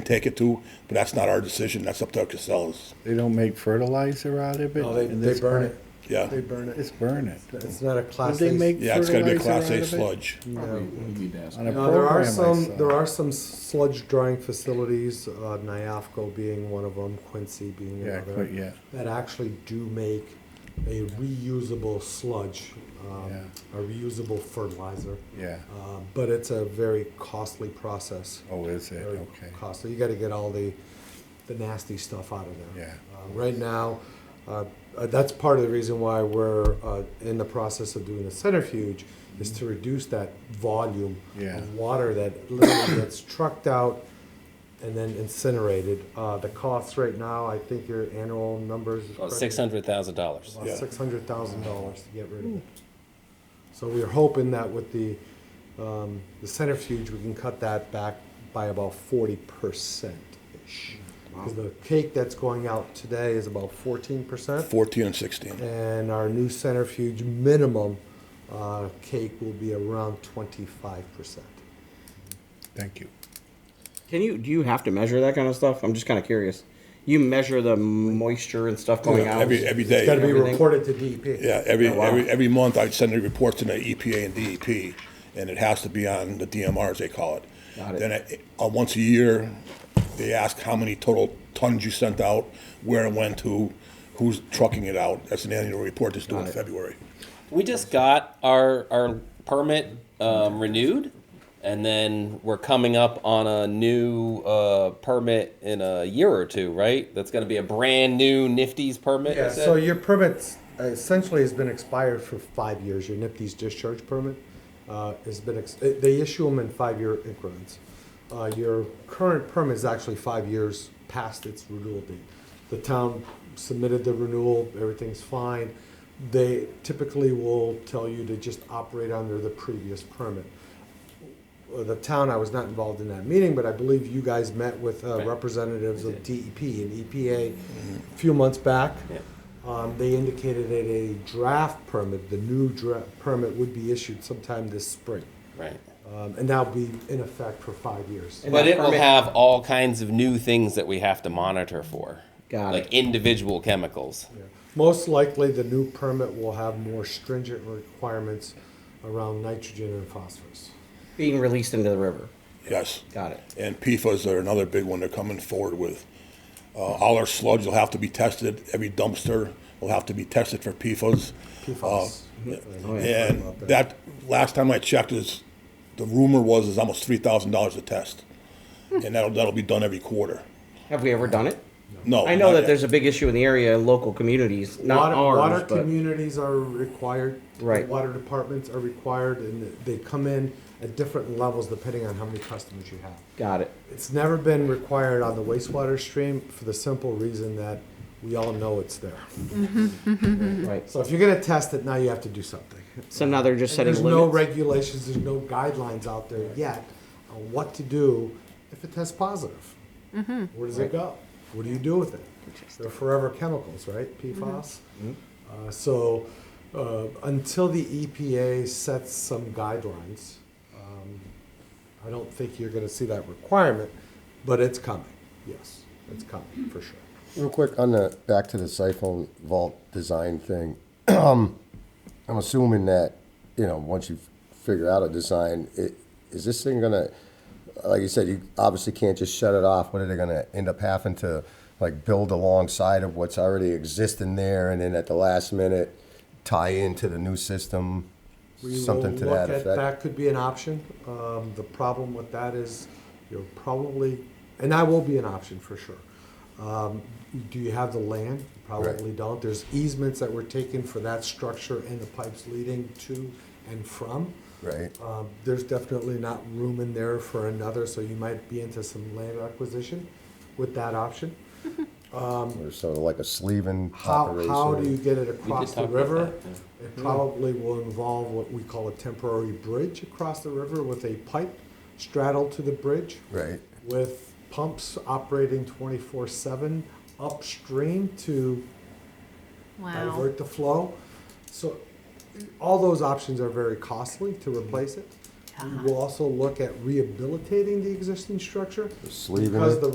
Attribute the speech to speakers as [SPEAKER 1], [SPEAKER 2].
[SPEAKER 1] take it to, but that's not our decision. That's up to Casellas.
[SPEAKER 2] They don't make fertilizer out of it?
[SPEAKER 3] No, they,
[SPEAKER 2] in
[SPEAKER 3] they
[SPEAKER 2] this
[SPEAKER 3] burn
[SPEAKER 2] part?
[SPEAKER 3] it.
[SPEAKER 1] Yeah.
[SPEAKER 3] They burn it.
[SPEAKER 2] It's burn it.
[SPEAKER 3] It's not a class.
[SPEAKER 2] Would they
[SPEAKER 3] A-
[SPEAKER 2] make
[SPEAKER 1] Yeah, it's gotta be a Class
[SPEAKER 2] fertilizer out
[SPEAKER 1] A
[SPEAKER 2] of it?
[SPEAKER 1] sludge.
[SPEAKER 3] No.
[SPEAKER 4] We need to ask.
[SPEAKER 2] On a
[SPEAKER 3] No, there are
[SPEAKER 2] program I
[SPEAKER 3] some,
[SPEAKER 2] saw.
[SPEAKER 3] there are some sludge drying facilities, uh, Niafco being one of them, Quincy being
[SPEAKER 2] Yeah,
[SPEAKER 3] another.
[SPEAKER 2] quite, yeah.
[SPEAKER 3] That actually do make a reusable sludge, um,
[SPEAKER 2] Yeah.
[SPEAKER 3] a reusable fertilizer.
[SPEAKER 2] Yeah.
[SPEAKER 3] Uh, But it's a very costly process.
[SPEAKER 2] Oh, is it?
[SPEAKER 3] Very
[SPEAKER 2] Okay.
[SPEAKER 3] Costly. You gotta get all the, the nasty stuff out of there.
[SPEAKER 2] Yeah.
[SPEAKER 3] Uh, Right now, uh, uh, that's part of the reason why we're uh, in the process of doing a centrifuge, is to reduce that volume
[SPEAKER 2] Mm-hmm. Yeah.
[SPEAKER 3] of water that literally gets trucked out and then incinerated. Uh, The costs right now, I think your annual numbers is correct?
[SPEAKER 5] Oh, Six hundred thousand dollars.
[SPEAKER 3] About
[SPEAKER 1] Yeah.
[SPEAKER 3] six hundred thousand dollars to get rid of it. So we are hoping that with the, um, the centrifuge, we can cut that back by about forty percent-ish. Because the cake that's going out today is about fourteen percent,
[SPEAKER 1] 14 and 16.
[SPEAKER 3] and our new centrifuge minimum, uh, cake will be around twenty-five percent.
[SPEAKER 2] Thank you.
[SPEAKER 6] Can you do you have to measure that kind of stuff? I'm just kind of curious. You measure the moisture and stuff going out.
[SPEAKER 1] Every, every day.
[SPEAKER 3] It's gotta be
[SPEAKER 6] Everything.
[SPEAKER 3] reported to E DEP.
[SPEAKER 1] Yeah, every,
[SPEAKER 6] Oh, wow.
[SPEAKER 1] every, every month I'd send the reports to the EPA and DEP, and it has to be on the DMR, as they call it.
[SPEAKER 6] Got it.
[SPEAKER 1] Then, I- uh, once a year, they ask how many total tons you sent out, where and when to, who's trucking it out. That's an annual report that's due in
[SPEAKER 6] Got it.
[SPEAKER 1] February.
[SPEAKER 5] We just got our our permit um, renewed, and then we're coming up on a new uh, permit in a year or two, right? That's going to be a brand new Nifty's permit.
[SPEAKER 3] Yeah,
[SPEAKER 5] you said?
[SPEAKER 3] so your permit uh, essentially has been expired for five years, your NIPD's discharge permit uh, has been, ex- eh, they issue them in five-year increments. Uh, Your current permit is actually five years past its renewal date. The town submitted the renewal, everything's fine. They typically will tell you to just operate under the previous permit. Uh, The town, I was not involved in that meeting, but I believe you guys met with uh,
[SPEAKER 5] Right.
[SPEAKER 3] representatives
[SPEAKER 5] We
[SPEAKER 3] of
[SPEAKER 5] did. Mm-hmm.
[SPEAKER 3] DEP and EPA a few months back.
[SPEAKER 5] Yeah.
[SPEAKER 3] Um, they indicated that a draft permit, the new draft permit would be issued sometime this spring.
[SPEAKER 5] right.
[SPEAKER 3] Um, and that'll be in effect for five years.
[SPEAKER 6] And
[SPEAKER 5] But
[SPEAKER 6] that
[SPEAKER 5] it will
[SPEAKER 6] permit-
[SPEAKER 5] have all kinds of new things that we have to monitor for.
[SPEAKER 6] Got
[SPEAKER 5] like
[SPEAKER 6] it.
[SPEAKER 5] individual chemicals.
[SPEAKER 3] Most likely, the new permit will have more stringent requirements around nitrogen and phosphorus.
[SPEAKER 6] being released into the river.
[SPEAKER 1] Yes.
[SPEAKER 6] Got it.
[SPEAKER 1] And PFAS are another big one they're coming forward with. Uh, all our sludge will have to be tested, every dumpster will have to be tested for PFAS.
[SPEAKER 3] PFAS.
[SPEAKER 6] Oh, yeah.
[SPEAKER 1] And that, last time I checked is, the rumor was is almost three thousand dollars a test. And that'll, that'll be done every quarter.
[SPEAKER 6] Have we ever done it?
[SPEAKER 1] No.
[SPEAKER 6] I know
[SPEAKER 1] not
[SPEAKER 6] that
[SPEAKER 1] yet.
[SPEAKER 6] there's a big issue in the area, local communities,
[SPEAKER 3] water,
[SPEAKER 6] not ours,
[SPEAKER 3] water
[SPEAKER 6] but
[SPEAKER 3] communities are required.
[SPEAKER 6] Right.
[SPEAKER 3] Water departments are required, and they come in at different levels depending on how many customers you have.
[SPEAKER 6] got it.
[SPEAKER 3] It's never been required on the wastewater stream for the simple reason that we all know it's there.
[SPEAKER 6] Right.
[SPEAKER 3] So if you're gonna test it, now you have to do something.
[SPEAKER 6] So now they're just
[SPEAKER 3] And
[SPEAKER 6] setting
[SPEAKER 3] there's
[SPEAKER 6] limits.
[SPEAKER 3] no regulations, there's no guidelines out there yet on what to do if it tests positive. Where does it go? What do you do with it? They're forever chemicals, right? PFAS.
[SPEAKER 6] Mm-hmm.
[SPEAKER 3] Uh, so uh, until the EPA sets some guidelines, um, I don't think you're going to see that requirement, but it's coming. Yes, it's coming for sure.
[SPEAKER 7] Real quick on the back to the siphon vault design thing. I'm assuming that you know once you figure out a design, it, is this thing gonna, like you said, you obviously can't just shut it off. What are they gonna end up having to like build alongside of what's already existing there, and then at the last minute tie into the new system,
[SPEAKER 3] We
[SPEAKER 7] something
[SPEAKER 3] will
[SPEAKER 7] to
[SPEAKER 3] look
[SPEAKER 7] that
[SPEAKER 3] at-
[SPEAKER 7] effect.
[SPEAKER 3] That could be an option. Um, the problem with that is you're probably, and that will be an option for sure. Um, do you have the land? You Probably don't. There's easements that were taken for that structure and the pipes leading to and from.
[SPEAKER 7] Right.
[SPEAKER 3] Um, there's definitely not room in there for another, so you might be into some land acquisition with that option.
[SPEAKER 7] Or sort of like a sleeving
[SPEAKER 3] How,
[SPEAKER 7] operation.
[SPEAKER 3] how do you get it across the
[SPEAKER 5] talk about
[SPEAKER 3] river?
[SPEAKER 5] that,
[SPEAKER 3] It probably will involve what we call a temporary bridge across the river with a pipe straddled to the bridge
[SPEAKER 7] right?
[SPEAKER 3] with pumps operating twenty-four seven upstream to
[SPEAKER 8] Wow.
[SPEAKER 3] divert the flow. So all those options are very costly to replace it. We will also look at rehabilitating the existing structure.
[SPEAKER 7] Sleeving
[SPEAKER 3] Because
[SPEAKER 7] it.
[SPEAKER 3] the